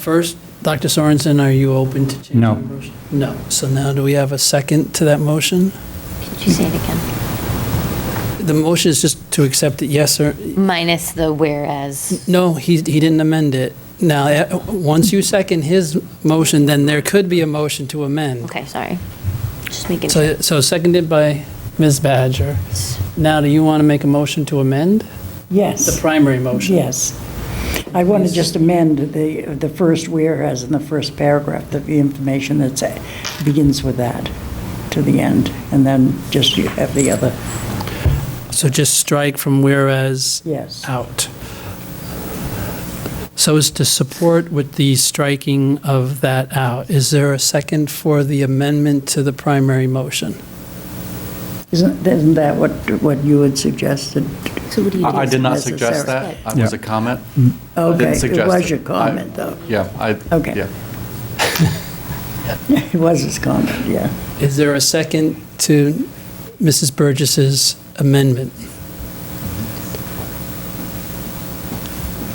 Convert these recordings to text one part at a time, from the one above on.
First, Dr. Sorensen, are you open to changing? No. the motion? No. So now do we have a second to that motion? Could you say it again? The motion is just to accept it, yes or, Minus the whereas. no, he, he didn't amend it. Now, eh, once you second his motion, then there could be a motion to amend. Okay, sorry. Just making sure. So, so seconded by Ms. Badger. Now, do you want to make a motion to amend the Yes, primary motion? yes. I want to just amend the, the first whereas in the first paragraph, the information that begins with that to the end, and then just you have the other, So just strike from whereas yes. out. So as to support with the striking of that out, is there a second for the amendment to the primary motion? Isn't, isn't that what, what you had suggested? So what do you I I did not suggest Necessary. that. It was Yeah. a comment. I didn't Okay, it suggest was your I- comment, though. Yeah, I, Okay. yeah. It was his comment, yeah. Is there a second to Mrs. Burgess's amendment?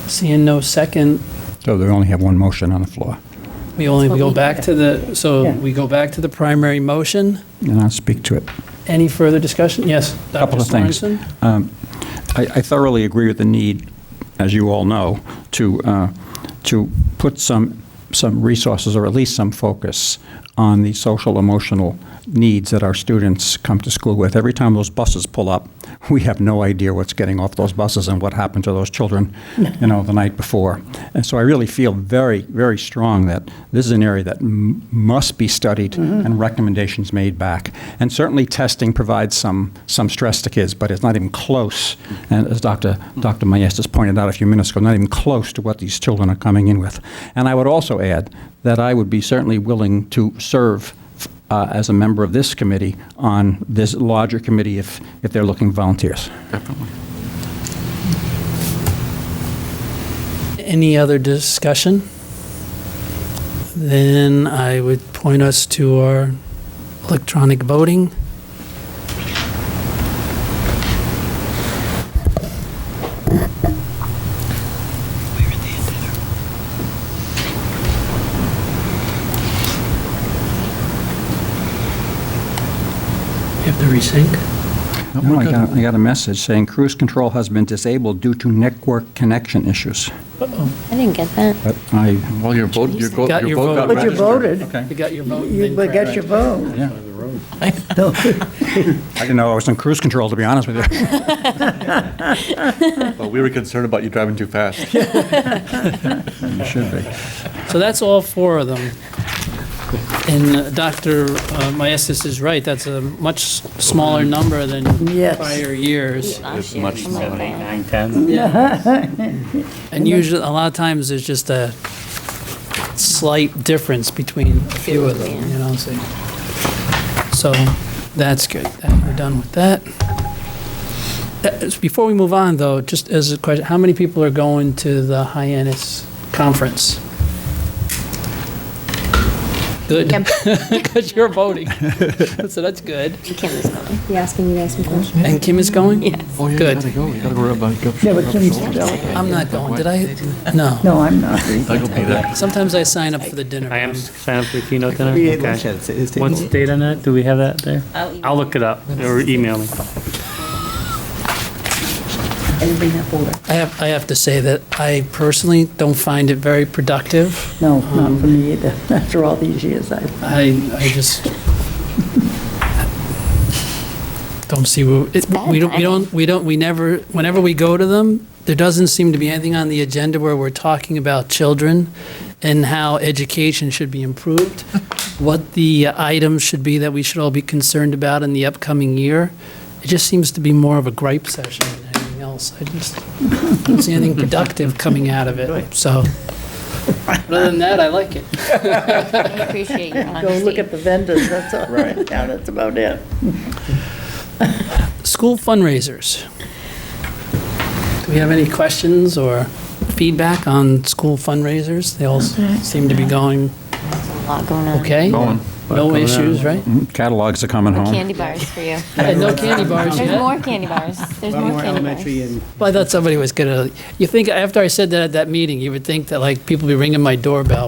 Seeing no second, So they only have one motion on the floor, we only That's what go we- back to the, so Yeah. we go back to the primary motion. and I'll speak to it. Any further discussion? Yes, Dr. Couple of things. Sorensen? Um, I I thoroughly agree with the need, as you all know, to, uh, to put some, some resources, or at least some focus, on the social, emotional needs that our students come to school with. Every time those buses pull up, we have no idea what's getting off those buses and what happened to those children, you know, the night before. And so I really feel very, very strong that this is an area that m- must be studied and recommendations made back. And certainly testing provides some, some stress to kids, but it's not even close, and as Dr. Dr. Maestas pointed out a few minutes ago, not even close to what these children are coming in with. And I would also add that I would be certainly willing to serve uh, as a member of this committee on this larger committee if, if they're looking volunteers. Any other discussion? Then I would point us to our electronic voting. You have to resync? No, I got, I got a message saying cruise control has been disabled due to network connection issues. I didn't get that. But I, Well, your vote, your vote Got your your vote vote. got But you registered. voted. okay. You got your vote? You then but correct. got your vote. I didn't know I was in cruise control, to be honest with you. But we were concerned about you driving too fast. You should be. So that's all four of them. And uh, Dr. uh, Maestas is right, that's a much smaller number than Yes. prior years. Last It's year. much I'm like, smaller. "Oh." And usually, a lot of times, there's just a slight difference between a few of them, you know, so. So, that's good, That- we're done with that. That is- Before we move on, though, just as a question, how many people are going to the Hyannis Conference? Good, because you're voting, so that's good. Kim is going. Be asking you guys some questions. And Kim is going? Oh, yeah, you Good. gotta go, you gotta go up and go. Yeah, but Kim's, I'm not going, did I? No, no, I'm not. Doug will be there. sometimes I sign up for the dinner. I am but I'm- signed up for the keynote dinner? We ate Okay. lunch at his table. What's the date on that? Do we have that there? I'll look it up or email me. I have, I have to say that I personally don't find it very productive. No, not for me either. After all these years, I I, I just don't see, where- it- bad we don't, we timing. don't, we don't, we never, whenever we go to them, there doesn't seem to be anything on the agenda where we're talking about children and how education should be improved, what the items should be that we should all be concerned about in the upcoming year. It just seems to be more of a gripe session than anything else. I just don't see anything productive coming out of it, so. Other than that, I like it. I appreciate your honesty. Go look at the vendors, that's all. Right. Yeah, that's about it. School fundraisers. Do we have any questions or feedback on school fundraisers? They all seem to be going A lot going on. okay. Going. Mm-hmm. No issues, right? Catalogs are coming home. Candy bars for you. And no candy bars There's yet. more candy bars. There's more candy elementary bars. and Well, I thought somebody was gonna, you think, after I said that at that meeting, you would think that like people be ringing my doorbell